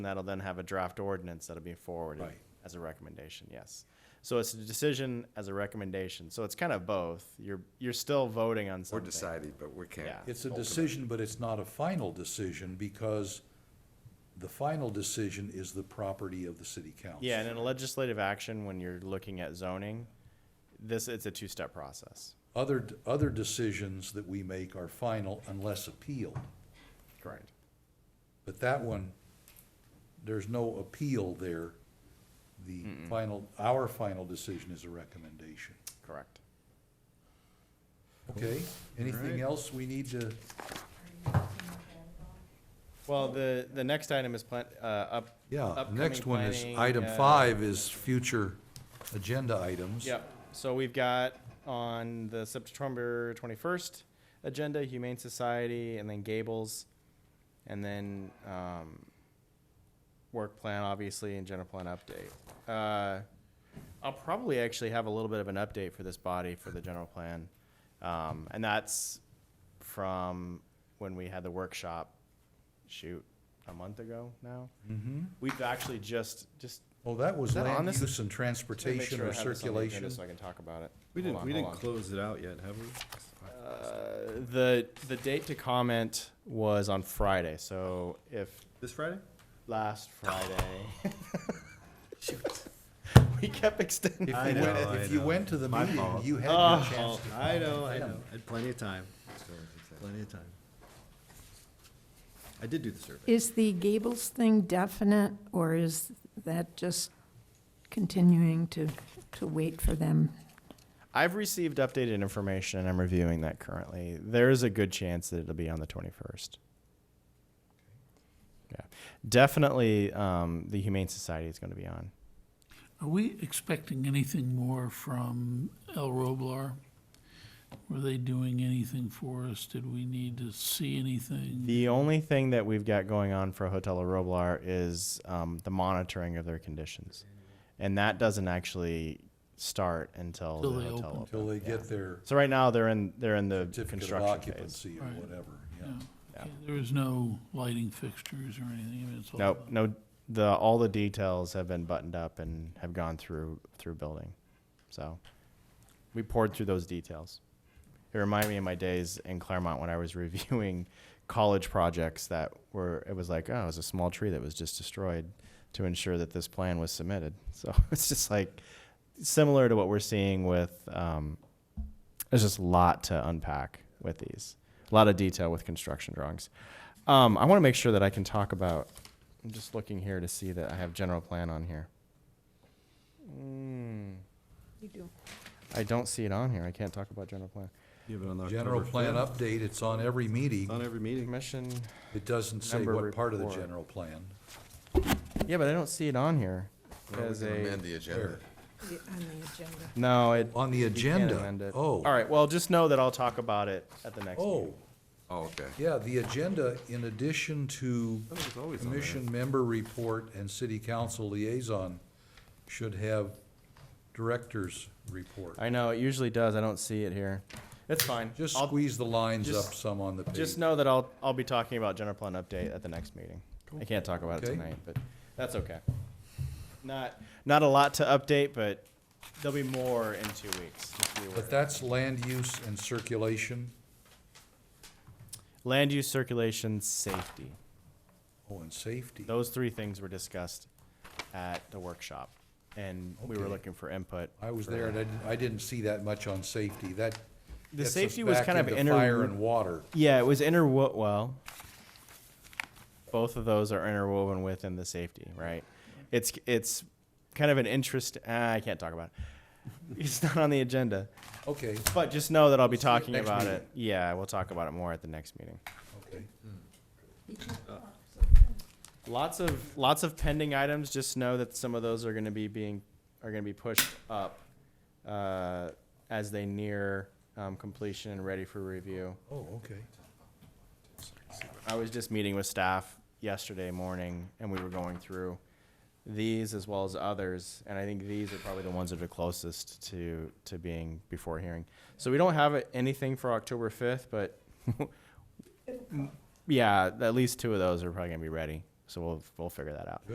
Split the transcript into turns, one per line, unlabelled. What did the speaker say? And that'll then have a draft ordinance that'll be forwarded
Right.
as a recommendation, yes. So it's a decision as a recommendation, so it's kind of both. You're, you're still voting on
We're
something.
deciding, but we can't.
Yeah.
It's a decision, but it's not a final decision because the final decision is the property of the city council.
Yeah, and in a legislative action, when you're looking at zoning, this, it's a two-step process.
Other, other decisions that we make are final unless appealed.
Correct.
But that one, there's no appeal there. The final, our final decision is a recommendation.
Correct.
Okay, anything else we need to,
Well, the, the next item is plan, uh, up.
yeah,
upcoming
next one is,
planning,
item
uh,
five is future agenda items.
Yep, so we've got on the September twenty-first agenda, Humane Society, and then Gables, and then, um, work plan, obviously, and general plan update. Uh, I'll probably actually have a little bit of an update for this body for the general plan, um, and that's from when we had the workshop, shoot, a month ago now? Mm-hmm. We've actually just, just
Oh, that was
Is that on
land
this?
use and
just wanna make
transportation
sure I
or
have this on the agenda
circulation.
So I can talk about it.
We
Hold
didn't,
on,
we
hold
didn't
on.
close it out yet, have we?
Uh, the the date to comment was on Friday, so if
This Friday?
last Friday. We kept extending.
If
I
you went,
know, I
if you
know.
went to the meeting, you had your
Oh.
chance to.
I know, I know, I had plenty of time, plenty of time. I did do the survey.
Is the Gables thing definite, or is that just continuing to, to wait for them?
I've received updated information and I'm reviewing that currently. There is a good chance that it'll be on the 21st. Yeah. Definitely um, the Humane Society is going to be on.
Are we expecting anything more from El Roblar? Were they doing anything for us? Did we need to see anything?
The only thing that we've got going on for Hotel La Roblar is um, the monitoring of their conditions. And that doesn't actually start until
Till
the
they
hotel
open.
opens.
Till they get their
So right now they're in they're in the
certificate of
construction phase.
occupancy or
Right.
whatever, yeah.
No.
Yeah.
Okay, There was no lighting fixtures or anything? I mean, it's all
Nope,
about-
no the all the details have been buttoned up and have gone through through building. So we poured through those details. It reminded me of my days in Claremont when I was reviewing college projects that were it was like, oh, it was a small tree that was just destroyed to ensure that this plan was submitted. So it's just like similar to what we're seeing with um, there's just a lot to unpack with these. A lot of detail with construction drawings. Um, I want to make sure that I can talk about. I'm just looking here to see that I have general plan on here. Mm,
You do.
I don't see it on here. I can't talk about general plan.
You have it on the
General
October
plan
5th.
update, it's on every meeting.
It's on every meeting.
Commission.
It doesn't say
Member
what part of the
report.
general plan.
Yeah, but I don't see it on here.
Well, we
as
can
a-
amend the agenda.
On the agenda.
no, it.
On the
you can't amend
agenda,
it.
oh.
All right. Well, just know that I'll talk about it at the next.
Oh,
meeting.
Oh, okay.
yeah, the agenda, in addition to
That was always on there.
commission member report and city council liaison, should have director's report.
I know it usually does. I don't see it here. It's fine.
Just
I'll-
squeeze the lines
just-
up some on the page.
Just know that I'll, I'll be talking about general plan update at the next meeting. I can't talk about it
Okay.
tonight, but that's okay. Not, not a lot to update, but there'll be more in two weeks. just be aware.
But that's land use and circulation,
Land use, circulation, safety.
oh, and safety.
Those three things were discussed at the workshop. And we were
Okay.
looking for input.
I was
for-
there and I didn't, I didn't see that much on safety. That
The
gets us
safety was
back
kind of
into
inter-
Fire and water.
Yeah, it was interwo- well. Both of those are interwoven within the safety, right? It's it's kind of an interest. ah, I can't talk about it. It's not on the agenda,
Okay,
but just know that I'll be
See you
talking
next
about
meeting.
it. Yeah, we'll talk about it more at the next meeting.
okay.
Lots of lots of pending items. Just know that some of those are going to be being are going to be pushed up uh, as they near um, completion and ready for review.
Oh, okay.
I was just meeting with staff yesterday morning, and we were going through these as well as others, and I think these are probably the ones that are closest to, to being before hearing. So we don't have it- anything for October fifth, but yeah, at least two of those are probably gonna be ready, So we'll, we'll figure that out.